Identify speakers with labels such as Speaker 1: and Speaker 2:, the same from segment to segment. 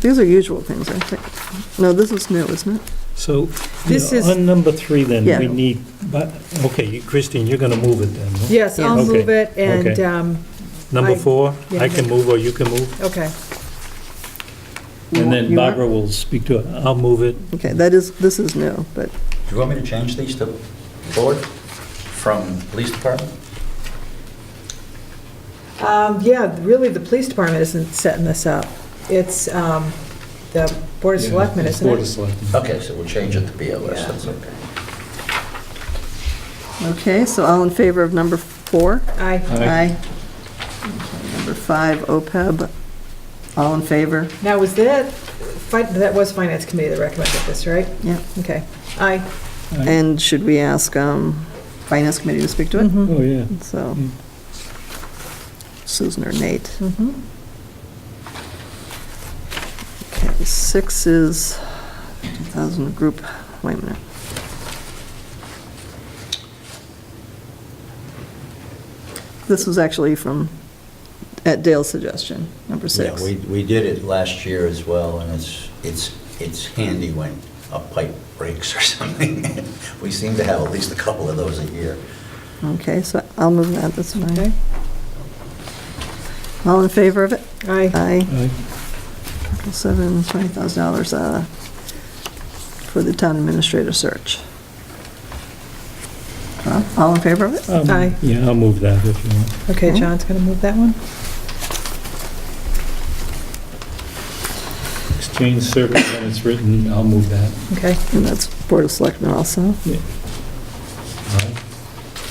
Speaker 1: These are usual things, I think. No, this is new, isn't it?
Speaker 2: So, you
Speaker 3: This
Speaker 2: know,
Speaker 3: is-
Speaker 2: on number three then,
Speaker 1: Yeah.
Speaker 2: we need, but, okay, you- Christine, you're gonna move it then, no?
Speaker 3: Yes, I'll
Speaker 2: Yes.
Speaker 3: move
Speaker 2: Okay,
Speaker 3: it and,
Speaker 2: okay.
Speaker 3: um,
Speaker 2: Number
Speaker 3: I-
Speaker 2: four,
Speaker 3: yeah.
Speaker 2: I can move or you can move,
Speaker 3: okay,
Speaker 1: You
Speaker 2: and
Speaker 1: want-
Speaker 2: then
Speaker 1: you want-
Speaker 2: Barbara will speak to it. I'll move it.
Speaker 1: Okay, that is, this is new, but
Speaker 4: Do you want me to change these to forward from police department?
Speaker 3: Um, yeah, really, the police department isn't setting this up. It's, um, the board of selectmen, isn't
Speaker 2: Board of
Speaker 3: it?
Speaker 2: Selectmen.
Speaker 4: Okay, so we'll change it to BOS,
Speaker 3: Yeah.
Speaker 4: that's okay.
Speaker 1: Okay, so all in favor of number four?
Speaker 3: Aye.
Speaker 1: Aye. Okay, Number five, OPEB, all in favor?
Speaker 3: Now, was that, fi- that was finance committee that recommended this, right?
Speaker 1: Yeah.
Speaker 3: Okay, aye.
Speaker 1: And should we ask um, Finance Committee to speak to it?
Speaker 3: Mhm.
Speaker 2: Oh, yeah.
Speaker 1: So
Speaker 2: Mm.
Speaker 1: Susan or Nate.
Speaker 3: Mhm.
Speaker 1: Okay, six is 2,000 group, wait a minute. This was actually from, at Dale's suggestion, number six.
Speaker 4: Yeah, we, we did it last year as well, and it's, it's, it's handy when a pipe breaks or something. We seem to have at least a couple of those a year.
Speaker 1: Okay, so I'll move that, that's
Speaker 3: Okay.
Speaker 1: fine. All in favor of it?
Speaker 3: Aye.
Speaker 1: Aye.
Speaker 2: Aye.
Speaker 1: Seven, twenty thousand dollars uh, for the town administrator search. Well, All in favor of it?
Speaker 2: Um,
Speaker 3: Aye.
Speaker 2: Yeah, I'll move that if you want.
Speaker 3: Okay, John's gonna move that one?
Speaker 2: Exchange service, when it's written, I'll move that.
Speaker 3: Okay,
Speaker 1: And that's Board of Selectmen also.
Speaker 2: Aye.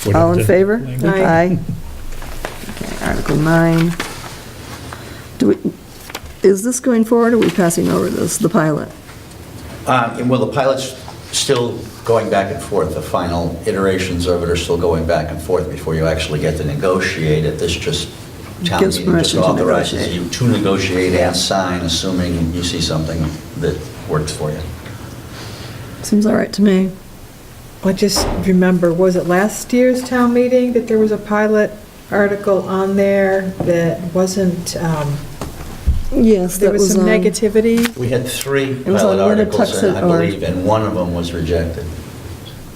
Speaker 2: Whatever
Speaker 1: All in
Speaker 2: the
Speaker 1: favor?
Speaker 2: language-
Speaker 3: Aye.
Speaker 1: Okay, Article nine. Do we, is this going forward, or are we passing over this, the pilot?
Speaker 4: Um, and Well, the pilot's still going back and forth. The final iterations of it are still going back and forth before you actually get to negotiate it. This just, town
Speaker 1: Gives
Speaker 4: meeting just
Speaker 1: permission to
Speaker 4: authorizes
Speaker 1: negotiate.
Speaker 4: you to negotiate and sign, assuming you see something that works for you.
Speaker 1: Seems all right to me.
Speaker 3: I just remember, was it last year's town meeting that there was a pilot article on there that wasn't, um,
Speaker 1: Yes,
Speaker 3: there
Speaker 1: that
Speaker 3: was um,
Speaker 1: was
Speaker 3: some
Speaker 1: on-
Speaker 3: negativity?
Speaker 4: We had three
Speaker 1: was
Speaker 4: pilot
Speaker 1: on
Speaker 4: articles, and I
Speaker 1: Winnetoxet or-
Speaker 4: believe, and one of them was rejected.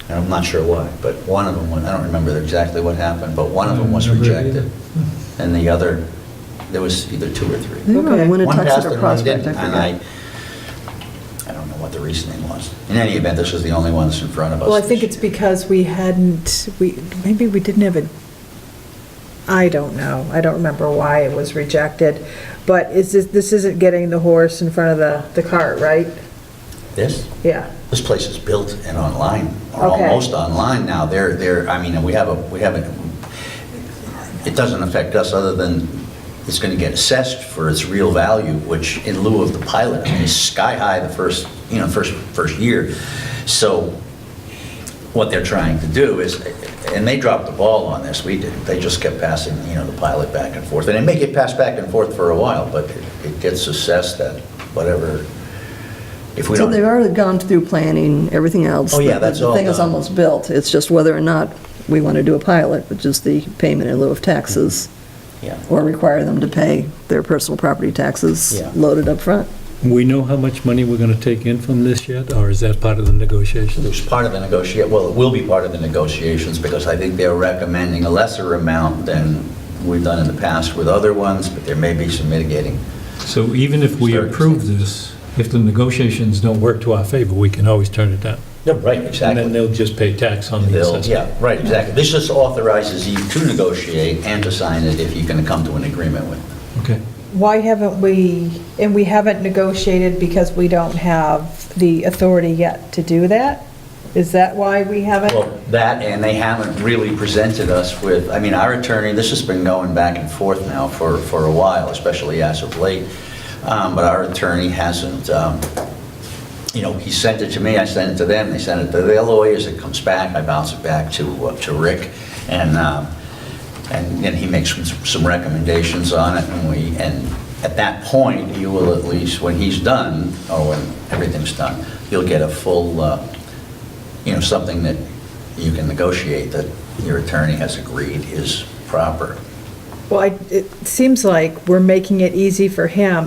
Speaker 4: And I'm not sure why, but one of them, wa- I don't remember exactly what happened, but one of them was
Speaker 2: I don't remember
Speaker 4: rejected. And the other, there was either two or
Speaker 1: I
Speaker 4: three.
Speaker 1: think we're on
Speaker 3: Okay.
Speaker 1: Winnetoxet
Speaker 4: One passed
Speaker 1: or
Speaker 4: and one
Speaker 1: Prospect,
Speaker 4: didn't,
Speaker 1: I
Speaker 4: and
Speaker 1: forget.
Speaker 4: I, I don't know what the reasoning was. In any event, this was the only one that's in front of us.
Speaker 3: Well, I think it's because we hadn't, we, maybe we didn't have a, I don't know, I don't remember why it was rejected, but is this, this isn't getting the horse in front of the, the cart, right?
Speaker 4: This,
Speaker 3: Yeah,
Speaker 4: this place is built and online, or
Speaker 3: Okay.
Speaker 4: almost online now. They're, they're, I mean, we have a, we have a, it doesn't affect us other than it's going to get assessed for its real value, which in lieu of the pilot, I mean, is sky high the first, you know, first, first year. So what they're trying to do is, and they dropped the ball on this, we did, they just kept passing, you know, the pilot back and forth. And it may get passed back and forth for a while, but it- it gets assessed at whatever, if we
Speaker 1: So
Speaker 4: don't.
Speaker 1: they've already gone through planning, everything else.
Speaker 4: Oh, yeah,
Speaker 1: The-
Speaker 4: that's all
Speaker 1: The thing is
Speaker 4: done.
Speaker 1: almost built. It's just whether or not we want to do a pilot, which is the payment in lieu of taxes,
Speaker 4: Yeah.
Speaker 1: or require them to pay their personal property taxes
Speaker 4: Yeah.
Speaker 1: loaded up front.
Speaker 2: We know how much money we're gonna take in from this yet, or is that part of the negotiation?
Speaker 4: It was part of the negotiate, well, it will be part of the negotiations, because I think they're recommending a lesser amount than we've done in the past with other ones, but there may be some mitigating.
Speaker 2: So even if we approve this, if the negotiations don't work to our favor, we can always turn it down.
Speaker 4: No, right,
Speaker 2: And then they'll just pay tax on the
Speaker 4: They'll-
Speaker 2: assessment.
Speaker 4: Yeah, right, exactly. This just authorizes you to negotiate and to sign it if you can come to an agreement with. them.
Speaker 2: Okay.
Speaker 3: why haven't we, and we haven't negotiated because we don't have the authority yet to do that? Is that why we
Speaker 4: Well,
Speaker 3: haven't?
Speaker 4: that, and they haven't really presented us with, I mean, our attorney, this has been going back and forth now for, for a while, especially as of late, Um, but our attorney hasn't, um, you know, he sent it to me, I sent it to them, they sent it to their lawyers, it comes back, I bounce it back to, uh, to Rick, and, um, and then he makes some- some recommendations on it, and we, and at that point, you will at least, when he's done, or when everything's done, you'll get a full, uh, you know, something that you can negotiate that your attorney has agreed is proper.
Speaker 3: Well, I- it seems like we're making it easy for him